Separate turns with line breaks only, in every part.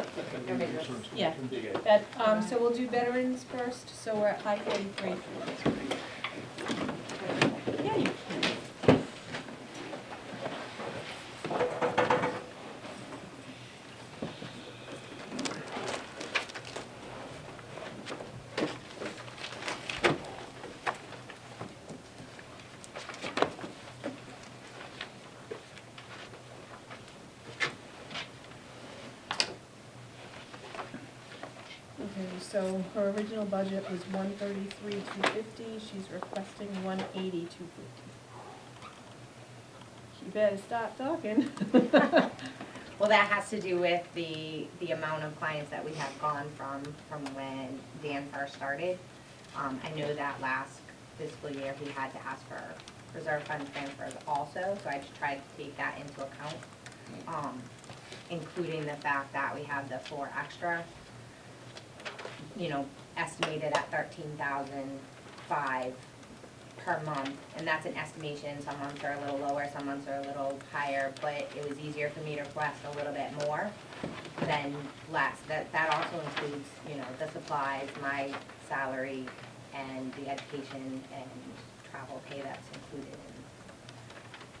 Better bigger, yeah. That, um, so we'll do veterans first, so we're at high forty-three. Yeah, you can. Okay, so her original budget was one thirty-three, two fifty, she's requesting one eighty, two fifty. She better stop talking.
Well, that has to do with the, the amount of clients that we have gone from, from when Dan first started. Um, I know that last fiscal year, he had to ask for reserve fund transfers also, so I just tried to take that into account. Um, including the fact that we have the four extra, you know, estimated at thirteen thousand five per month, and that's an estimation, some months are a little lower, some months are a little higher, but it was easier for me to request a little bit more than less. That, that also includes, you know, the supplies, my salary, and the education and travel pay that's included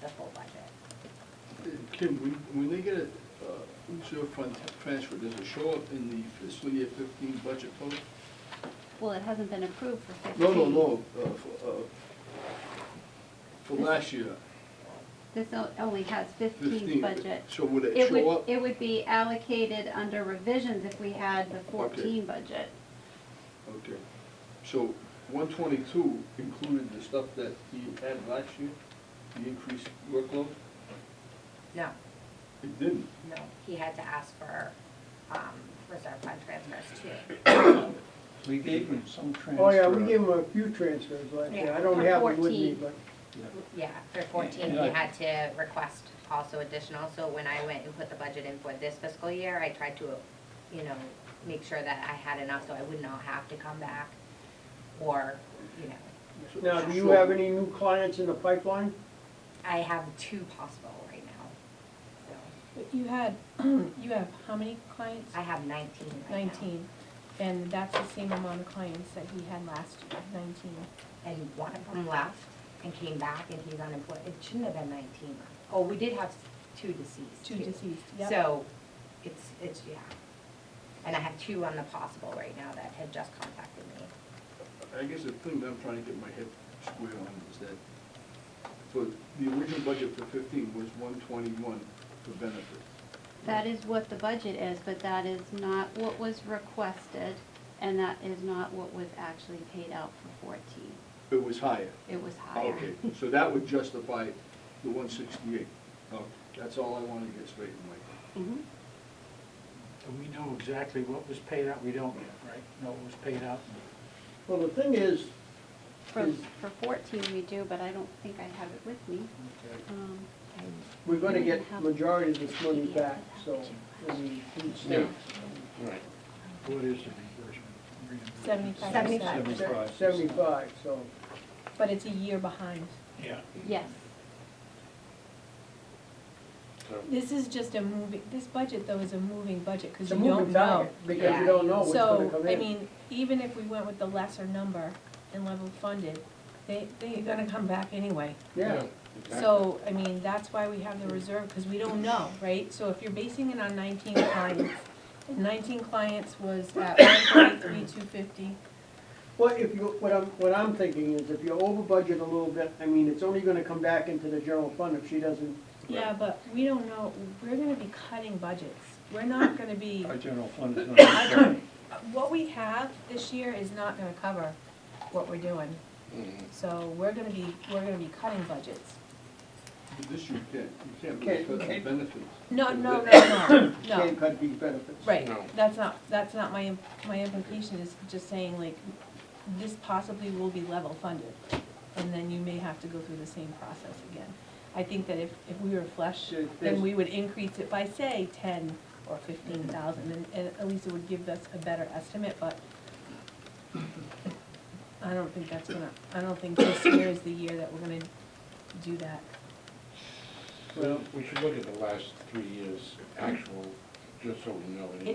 in the full budget.
Kim, when, when they get a, uh, reserve fund t- transfer, does it show up in the fiscal year fifteen budget post?
Well, it hasn't been approved for
No,
fifteen.
no, no, uh, for, uh, for last year,
This o- only has
fifteen.
fifteen budget.
So would it
It
show
would,
up?
it would be allocated under revisions if we had the fourteen budget.
Okay, so one twenty-two included the stuff that he had last year, the increased workload?
No,
It didn't.
no, he had to ask for, um, reserve fund transfers too.
We gave them some transfer.
Oh, yeah, we gave them a few transfers last year, I don't have them with me, but,
Yeah, for fourteen, we had to request also additional, so when I went and put the budget in for this fiscal year, I tried to, you know, make sure that I had enough so I would not have to come back, or, you know,
So-
now, do you
so-
have any new clients in the pipeline?
I have two possible right now. So,
But You had, you have how many clients?
I have nineteen right now.
Nineteen, and that's the same amount of clients that he had last year, nineteen.
And one of them left and came back and he's unemployed, it shouldn't have been nineteen. Oh, we did have two deceased
Two
too.
deceased, yep.
So, it's, it's, yeah. And I have two on the possible right now that have just contacted me.
I guess the thing that I'm trying to get my head square on is that, so the original budget for fifteen was one twenty-one for benefits.
That is what the budget is, but that is not what was requested, and that is not what was actually paid out for fourteen.
It was higher.
It was higher.
Okay, so that would justify the one sixty-eight. Oh, That's all I want to get straight in my Mm-hmm.
Mhm.
And we know exactly what was paid out, we don't yet, right? Know what was paid out.
Well, the thing is,
For,
Is-
for fourteen we do, but I don't think I have it with me.
Okay.
Um,
we're gonna get majority of this money back, so, I mean, from the state.
Right. What is the reimbursement?
Seventy-five
Seventy-five.
percent,
Seventy-five, so,
but it's a year behind.
Yeah.
Yes,
Oh.
This is just a moving, this budget though is a moving budget, cause
it's a
you don't
moving
know.
target, because
Yeah.
you don't know what's
So,
gonna come in.
I mean, even if we went with the lesser number and level funded, they, they're gonna come back anyway.
Yeah,
So, I mean, that's why we have the reserve, cause we don't know, right? So if you're basing it on nineteen clients, and nineteen clients was at one forty-three, two fifty,
well, if you, what I'm, what I'm thinking is, if you over budget a little bit, I mean, it's only gonna come back into the general fund if she doesn't,
Yeah, but we don't know, we're gonna be cutting budgets. We're not gonna be,
Our general fund is not.
what we have this year is not gonna cover what we're doing.
Mm-hmm.
So we're gonna be, we're gonna be cutting budgets.
But This you can't, you can't really
Can't-
cut the
can't-
benefits.
No, no, no, no, no,
can't cut these benefits.
right, that's not, that's not my, im- my implication is just saying like, this possibly will be level funded. And then you may have to go through the same process again. I think that if, if we were flush,
There-
then
there's-
we would increase it by, say, ten or fifteen thousand, and, and at least it would give us a better estimate, but I don't think that's gonna, I don't think this year is the year that we're gonna do that.
Well, we should look at the last three years' actual, just so we know.
It